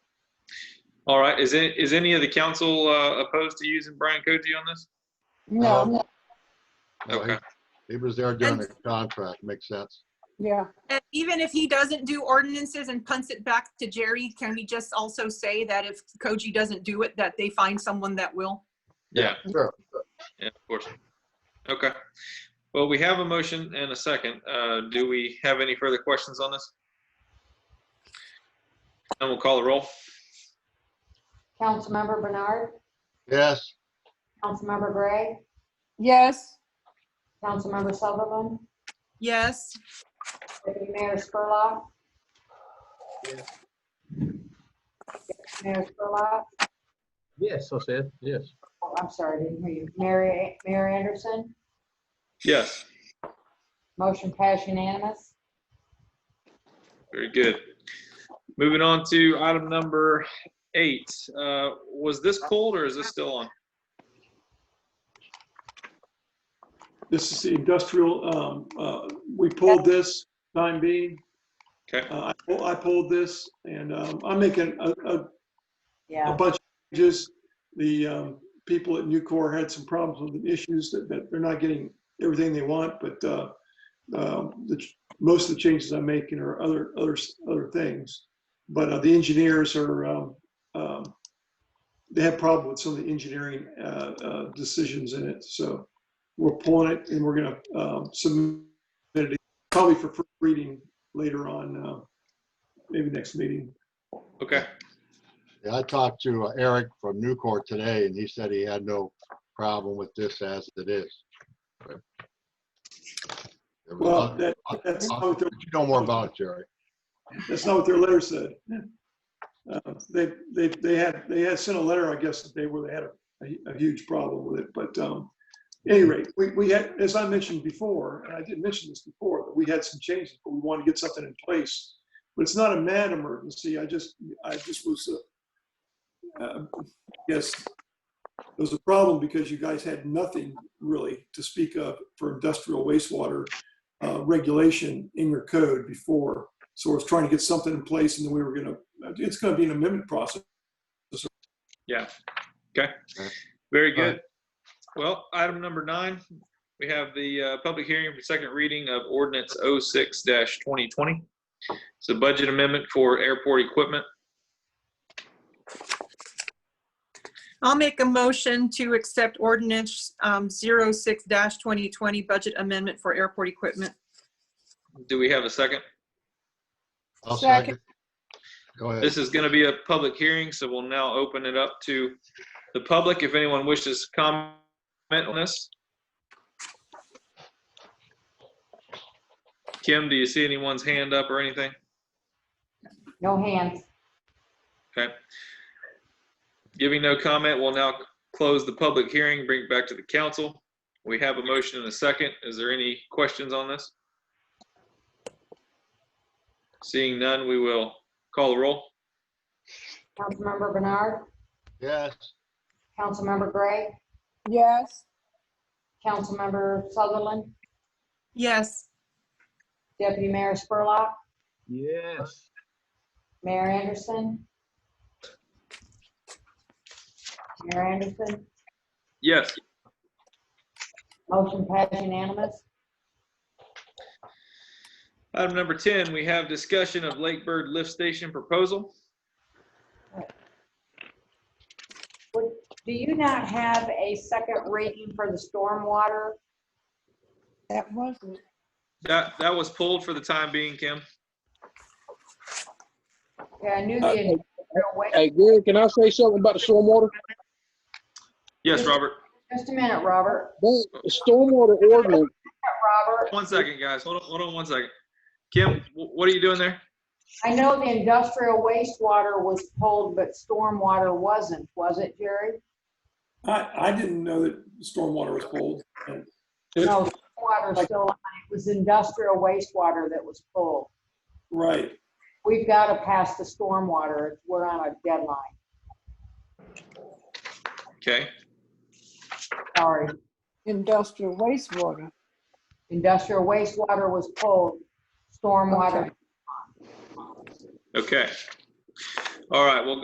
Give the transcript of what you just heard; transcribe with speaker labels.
Speaker 1: All right, is it, is any of the council uh, opposed to using Brian Koji on this?
Speaker 2: No,
Speaker 3: Um,
Speaker 2: no,
Speaker 3: No, he-
Speaker 1: Okay.
Speaker 3: He was there during the
Speaker 4: And-
Speaker 3: contract, makes sense.
Speaker 2: yeah,
Speaker 4: And even if he doesn't do ordinances and punts it back to Jerry, can we just also say that if Koji doesn't do it, that they find someone that will?
Speaker 1: Yeah,
Speaker 3: Sure.
Speaker 1: yeah, of course. Okay. Well, we have a motion and a second. Uh, Do we have any further questions on this? And we'll call the roll.
Speaker 5: Councilmember Bernard,
Speaker 3: Yes,
Speaker 5: Councilmember Gray,
Speaker 2: yes,
Speaker 5: Councilmember Sullivan,
Speaker 4: Yes,
Speaker 5: Deputy Mayor Spurlock. Deputy Mayor Spurlock,
Speaker 6: Yes, I said, yes.
Speaker 5: oh, I'm sorry, didn't hear you. Mary, Mayor Anderson,
Speaker 1: Yes,
Speaker 5: motion passed unanimous.
Speaker 1: very good. Moving on to item number eight. Uh, Was this pulled or is this still on?
Speaker 7: This is the industrial, um, uh, we pulled this time being.
Speaker 1: Okay.
Speaker 7: Uh, I pull- I pulled this and um, I'm making a, a- a
Speaker 5: Yeah,
Speaker 7: bunch of changes. The um, people at Nucor had some problems with the issues that, that they're not getting everything they want, but uh, um, the, ch- most of the changes I'm making are other, other, s- other things. But uh, the engineers are, um, um, they have problem with some of the engineering uh, uh, decisions in it, so we're pulling it and we're gonna um, submit it probably for first reading later on, uh, maybe next meeting.
Speaker 1: Okay,
Speaker 3: Yeah, I talked to uh, Eric from Newcore today, and he said he had no problem with this as it is. There was
Speaker 7: Well,
Speaker 3: nothing-
Speaker 7: that, that's not what they're
Speaker 3: But You know more about it, Jerry.
Speaker 7: That's not what their letter said. Uh, They, they, they had, they had sent a letter, I guess, that they were, they had a, a huge problem with it, but, um, at any rate, we, we had, as I mentioned before, and I did mention this before, that we had some changes, but we wanted to get something in place. But it's not a mad emergency, I just, I just was, uh, uh, yes, it was a problem because you guys had nothing really to speak of for industrial wastewater, uh, regulation in your code before. So we're trying to get something in place and then we were gonna, it's gonna be an amendment process.
Speaker 1: very
Speaker 3: All right.
Speaker 1: good. Well, item number nine, we have the uh, public hearing for second reading of ordinance 06-2020. It's a budget amendment for airport equipment.
Speaker 4: I'll make a motion to accept ordinance um, 06-2020 budget amendment for airport equipment.
Speaker 1: Do we have a second?
Speaker 3: I'll
Speaker 2: Second.
Speaker 3: second. Go ahead.
Speaker 1: This is going to be a public hearing, so we'll now open it up to the public. If anyone wishes to comment on this. Kim, do you see anyone's hand up or anything?
Speaker 5: no hands.
Speaker 1: Okay. Giving no comment, we'll now close the public hearing, bring it back to the council. We have a motion and a second. Is there any questions on this? Seeing none, we will call the roll.
Speaker 5: Councilmember Bernard,
Speaker 3: Yes,
Speaker 5: Councilmember Gray,
Speaker 2: yes,
Speaker 5: Councilmember Sutherland,
Speaker 4: Yes,
Speaker 5: Deputy Mayor Spurlock,
Speaker 6: Yes.
Speaker 5: Mayor Anderson. Mayor Anderson,
Speaker 1: Yes.
Speaker 5: motion passed unanimous.
Speaker 1: Item number 10, we have discussion of Lake Bird Lift Station proposal.
Speaker 5: Do you not have a second reading for the stormwater?
Speaker 2: that wasn't,
Speaker 1: That, that was pulled for the time being, Kim.
Speaker 5: Yeah, I knew the.
Speaker 6: Hey, Gary, can I say something about the stormwater?
Speaker 1: Yes, Robert.
Speaker 5: Just a minute, Robert.
Speaker 6: The stormwater ordinance,
Speaker 5: Robert,
Speaker 1: One second, guys. Hold on, hold on one second. Kim, wh- what are you doing there?
Speaker 5: I know the industrial wastewater was pulled, but stormwater wasn't, was it, Jerry?
Speaker 7: I, I didn't know that stormwater was pulled.
Speaker 5: No, stormwater still, on. it was industrial wastewater that was pulled.
Speaker 7: Right.
Speaker 5: We've got to pass the stormwater. We're on a deadline.
Speaker 1: Okay,
Speaker 5: Sorry.
Speaker 2: industrial wastewater.
Speaker 5: Industrial wastewater was pulled, stormwater
Speaker 2: Okay.
Speaker 1: okay. All right, well,